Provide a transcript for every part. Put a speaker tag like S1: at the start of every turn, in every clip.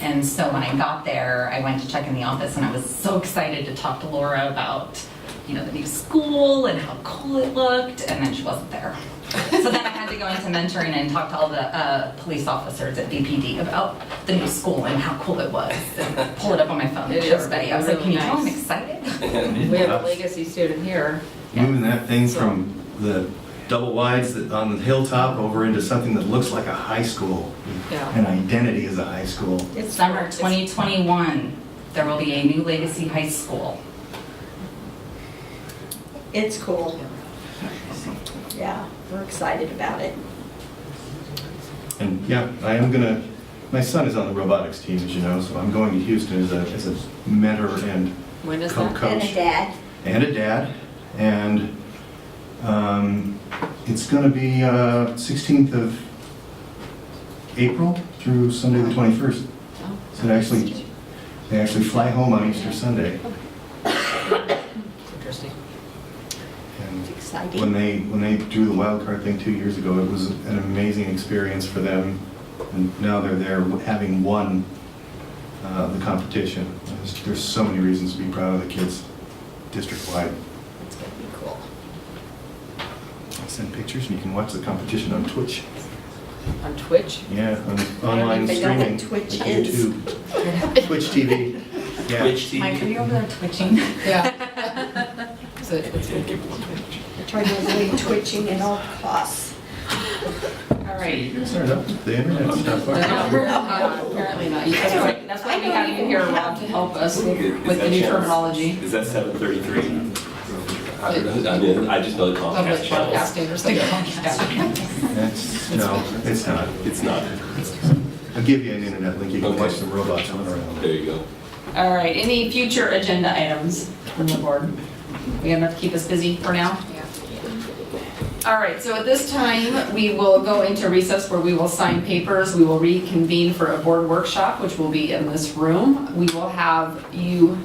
S1: And so when I got there, I went to check in the office and I was so excited to talk to Laura about, you know, the new school and how cool it looked, and then she wasn't there. So then I had to go into mentoring and talk to all the uh, police officers at BPD about the new school and how cool it was. and Pull it up on my phone and
S2: It
S1: show
S2: is
S1: everybody. I was like, can
S2: really
S1: you tell I'm
S2: nice.
S1: excited?
S2: We have a legacy student here.
S3: Moving that thing from the double wides that- on the hilltop over into something that looks like a high school,
S2: Yeah.
S3: an identity as a high school.
S2: It's
S1: Summer 2021, there will be a new Legacy High School.
S4: It's cool. Yeah, we're excited about it.
S3: And yeah, I am gonna, my son is on the robotics team, as you know, so I'm going to Houston as a, as a mentor and
S2: When is that?
S4: And a
S3: co-coach.
S4: dad.
S3: And a dad. And um, it's gonna be uh, 16th of April through Sunday the 21st.
S2: Oh.
S3: So they actually, they actually fly home on Easter Sunday.
S2: Interesting.
S3: And
S4: It's
S3: When
S4: exciting.
S3: they, when they do the wild card thing two years ago, it was an amazing experience for them. And now they're there having won uh, the competition. There's- There's so many reasons to be proud of the kids district-wide.
S4: It's gonna be cool.
S3: I send pictures and you can watch the competition on Twitch.
S2: On Twitch?
S3: Yeah, on
S4: don't
S3: online
S4: even know
S3: streaming.
S4: what Twitch
S3: like
S4: is.
S3: YouTube. Twitch TV. Yeah.
S5: Which team?
S1: Mike, are you over there twitching?
S2: Yeah. So it's-
S4: I try to avoid twitching at all costs.
S1: All right.
S3: Start up the internet
S2: No,
S3: stuff.
S2: uh, Apparently not. You- That's why- that's why we have you here, Rob, to help us
S5: Is
S2: with the
S5: that
S2: new
S5: channel-
S2: terminology.
S5: Is that seven thirty-three? I
S2: It-
S5: don't know. I didn't- I just know the
S2: Of
S5: Comcast
S2: the
S5: channels.
S2: podcasting or something.
S3: That's, no, it's not.
S5: It's not.
S3: I'll give you an internet link. You can watch some robots run around.
S5: There you go.
S2: All right, any future agenda items from the board? We have enough to keep us busy for now? All right, so at this time, we will go into recess where we will sign papers. We will reconvene for a board workshop, which will be in this room. We will have you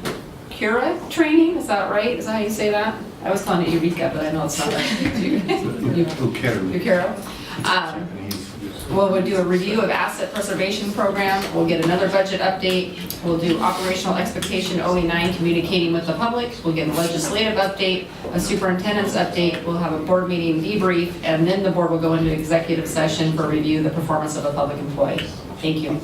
S2: Kira training, is that right? Is that how you say that? I was calling it Eureka, but I know it's not right. You-
S3: Who cares?
S2: Yukira. Um, We'll, we'll do a review of asset preservation program, we'll get another budget update, we'll do operational expectation OE9, communicating with the public, we'll get a legislative update, a superintendent's update, we'll have a board meeting debrief, and then the board will go into executive session for review of the performance of a public employee. Thank you.